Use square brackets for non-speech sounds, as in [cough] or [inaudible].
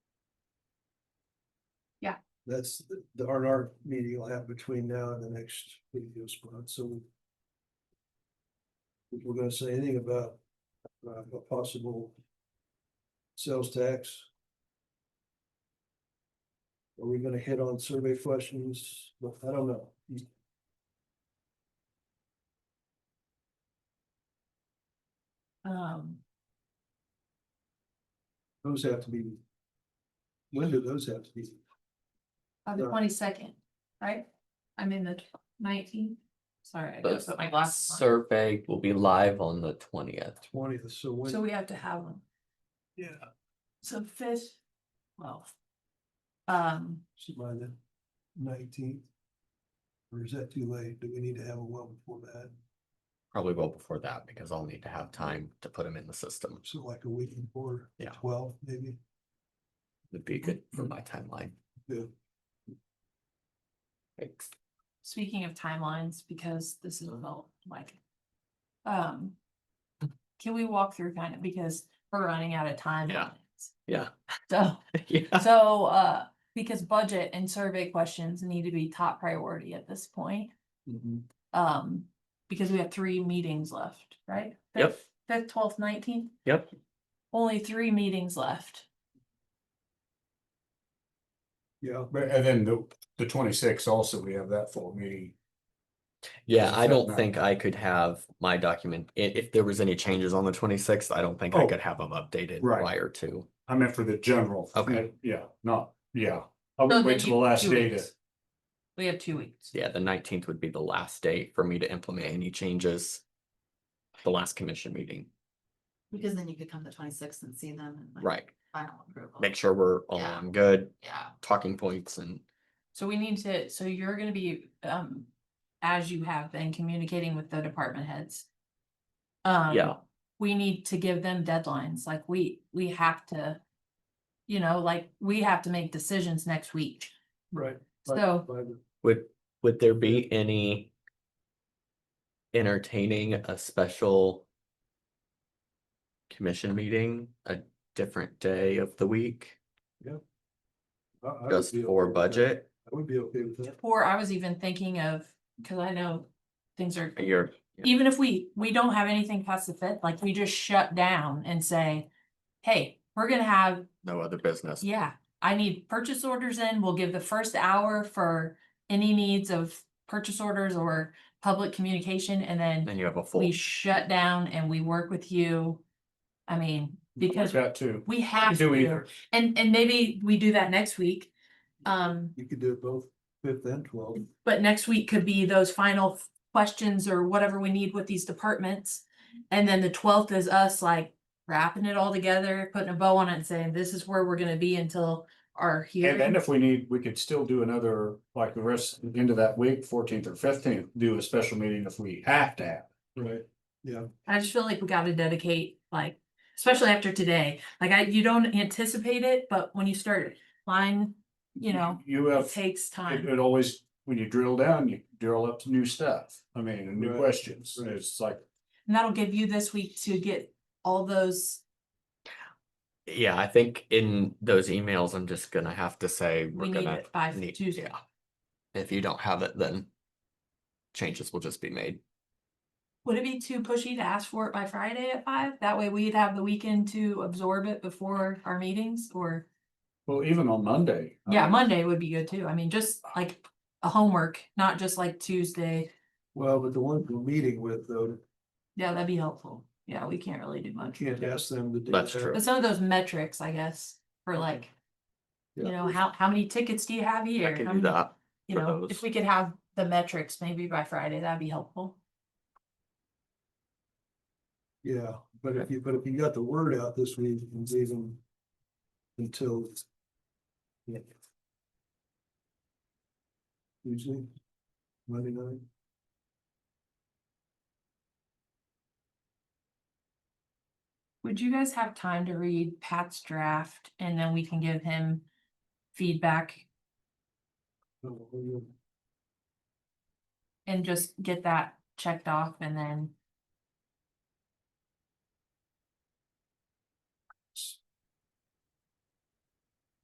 That's the R and R meeting will have between now and the next video spot, so. If we're gonna say anything about uh a possible. Sales tax. Are we gonna hit on survey questions? Well, I don't know. Um, Those have to be. When do those have to be? on Uh, the Yeah. twenty-second, right? I'm in the nineteenth, sorry, I gotta put my The glasses on. survey will be live on the twentieth. Twentieth, so So when? we have to have them, Yeah. so fifth, well. Um, So by the nineteenth? Or is that too late? Do we need to have it well before that? Probably well before that, because I'll need to have time to put them in the system. So like a week before? Yeah. Twelve, maybe? Would be good for my timeline. Yeah. Thanks. speaking of timelines, because this is about like. Um. Can we walk through kind of, because we're running out of time. Yeah. on this. Yeah, So. [laughs] yeah. So, uh, because budget and survey questions need to be top priority at this point, Mm-hmm. um, because we have three meetings left, right? Yep. Fifth- Fifth, twelfth, nineteenth? Yep. Only three meetings left. Yeah, But and then the the twenty sixth also, we have that full meeting. Yeah, I don't think I could have my document, i- if there was any changes on the twenty-sixth, I don't think I Oh. could have them updated Right. prior to. I meant for the general. Okay. Yeah, not, yeah. I So would then wait till the you- last two day to, weeks. We have two weeks. Yeah, the nineteenth would be the last date for me to implement any changes. The last commission meeting, Because then you could come the twenty-sixth and see them and. like, right? Final approval. Make sure we're all Yeah. on good Yeah, talking points and So we need to, so you're gonna be, um, as you have been communicating with the department heads. Um. Yeah. We need to give them deadlines, like we, we have to. You know, like, we have to make decisions next week, right. By- so. by the- Would, would there be any? Entertaining a special? Commission meeting, a different day of the week, I- I would just be okay for with that. budget, I would be okay with that. Or I was even thinking of, cause I know things are, you're, Yeah. even if we, we don't have anything past the fifth, like we just shut down and say. Hey, we're gonna have, no other business. yeah, I need purchase orders in, we'll give the first hour for any needs of purchase orders or public communication and then. Then you have a full, We shut down and we work with you. I mean, like because that too. we have Do to, either. and, and maybe we do that next week. Um. You could do it both fifth and twelfth. But next week could be those final f- questions or whatever we need with these departments. And then the twelfth is us like wrapping it all together, putting a bow on it and saying, this is where we're gonna be until our And then hearing. if we need, we could still do another, like the rest, into that week, fourteenth or fifteenth, do a special meeting if we have to have. Right. Yeah, I just feel like we gotta dedicate, like, especially after today, like I, you don't anticipate it, but when you start line, you know, You it have, takes it time. it always, when you drill down, you drill up new stuff. I mean, and new Right. questions. Right. It's like, And that'll give you this week to get all those, yeah, I think in those emails, I'm just gonna have to say, we we're need gonna. it by need- Tuesday. yeah. If you don't have it, then. Changes will just be made. Would it be too pushy to ask for it by Friday at five? That way we'd have the weekend to absorb it before our meetings or, well, even on Monday. I yeah, mean, Monday would be good too. I mean, just like a homework, not just like Tuesday. well, but the ones we're meeting with though, Yeah, that'd be helpful. Yeah, we can't really do I much. can't ask them to do that. That's true. But some of those metrics, I guess, for like, you Yeah. know, how, how many tickets do you have here? Mm-hmm. I can How do many- that. You for know, those. if we could have the metrics maybe by Friday, that'd be helpful. Yeah, but if you, but if you got the word out this week, you can leave them until. yeah. Usually, Monday night. Would you guys have time to read Pat's draft and then we can give him feedback no, we don't- and just get that checked off and then